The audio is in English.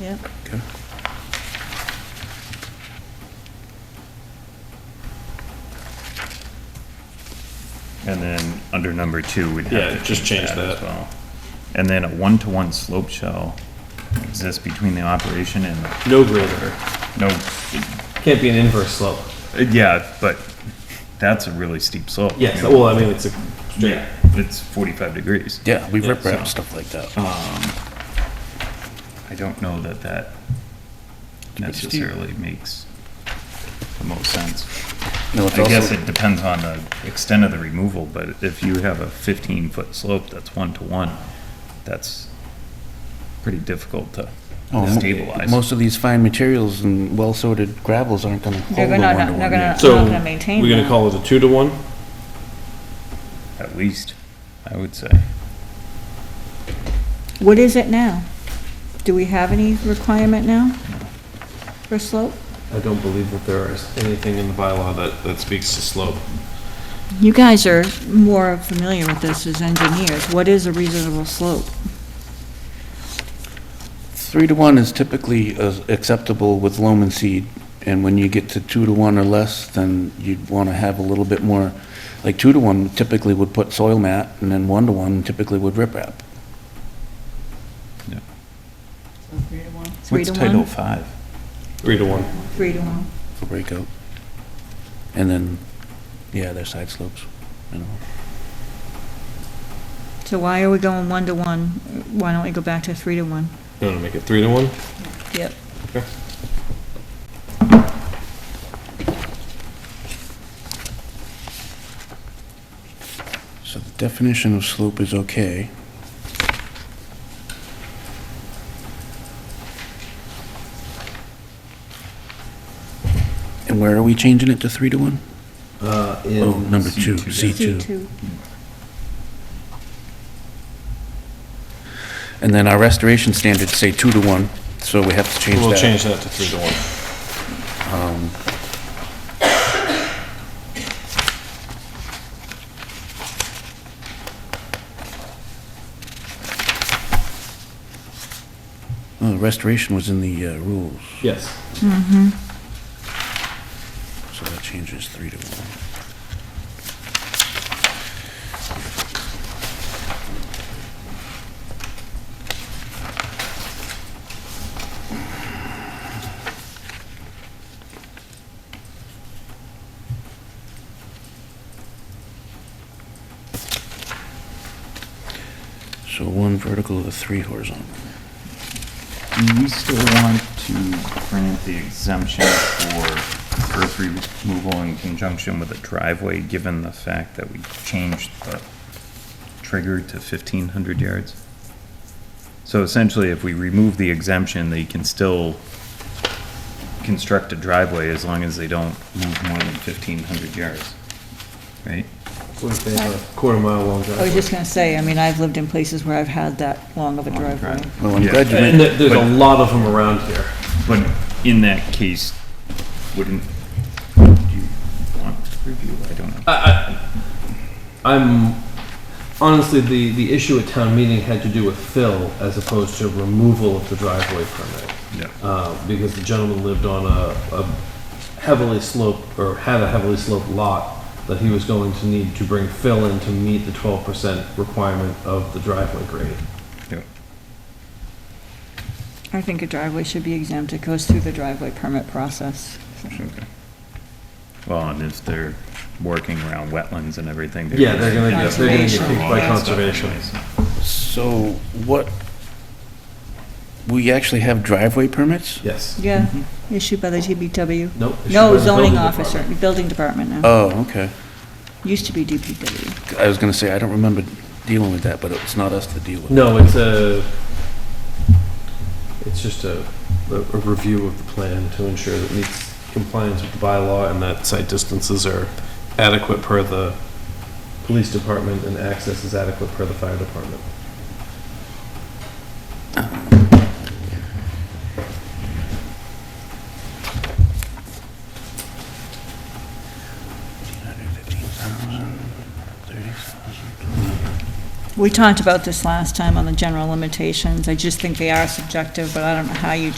Yeah. Okay. And then under number two, we'd have Yeah, to just change as that. well. And then a one-to-one slope shall exist between the operation and No greater. no, Can't be an inverse slope. yeah, but that's a really steep slope. Yes, well, I mean, it's a straight. Yeah, it's 45 degrees. Yeah, we Yeah, rip wrap so- uh, stuff like that. I don't know that that be steep. necessarily makes the most sense. No, it's I guess also, it depends on the extent of the removal, but if you have a 15-foot slope that's one-to-one, that's pretty difficult to Oh, mo- stabilize. most of these fine materials and well-sorted gravels aren't gonna hold They're a gonna not- one-to-one. they're yeah. not So, gonna maintain we're gonna that. call it a two to one? At least, I would say. What is it now? Do we have any requirement now for slope? I don't believe that there is anything in the bylaw that, that speaks to slope. You guys are more familiar with this as engineers. What is a reasonable slope? Three to one is typically uh, acceptable with loam and seed, and when you get to two to one or less, then you'd wanna have a little bit more, like two to one typically would put soil mat, and then one to one typically would rip wrap. Three to one. Three What's to Title one? Five? Three to one. Three to one. for breakout. And then, yeah, they're side slopes, you know. So why are we going one to one? Why don't we go back to three to one? You wanna make it three to one? Yep. So the definition of slope is okay. And where are we changing it to three to one? Uh, Oh, number two, C2. C C two. two. And then our restoration standards say two to one, so we have to change that. We'll change that to three to one. Uh, Restoration was in the uh, rules, Yes. so that changes three to one. So one vertical of three horizontal. Do we still want to grant the exemption for earth removal in conjunction with a driveway, given the fact that we changed the trigger to fifteen hundred yards? So essentially, if we remove the exemption, they can still construct a driveway as long as they don't move more than fifteen hundred yards, right? What if they have a quarter mile long I was driveway? Oh, just gonna say, I mean, I've lived in places where I've had that long of a Long driveway. drive. Well, I'm Yeah. glad you And mentioned, there- there's a lot of them around here. But in that case, wouldn't, do you want to review? I don't know. I'm, honestly, the, the issue at town meeting had to do with fill as opposed to removal of the driveway permit. Yeah. uh, because the gentleman lived on a, a heavily sloped, or had a heavily sloped lot that he was going to need to bring fill in to meet the twelve percent requirement of the driveway grade. Yeah. I think a driveway should be exempt. It goes through the driveway permit process. Okay. Well, and if they're working around wetlands and everything. Yeah, they're gonna get- they're gonna get Conservation. kicked by conservation. so what, we actually have driveway permits? Yes. Yeah, Mm-hmm. issued by the TBW. Nope. it should go No to the zoning building officer, department. building department now. Oh, okay. Used to be DPW. I was gonna say, I don't remember dealing with that, but it's not us to deal with. No, it's a, it's just a, a a review of the plan to ensure that meets compliance with the bylaw and that site distances are adequate per the police department and access is adequate per the fire department. We talked about this last time on the general limitations. I just think they are subjective, but I don't know how you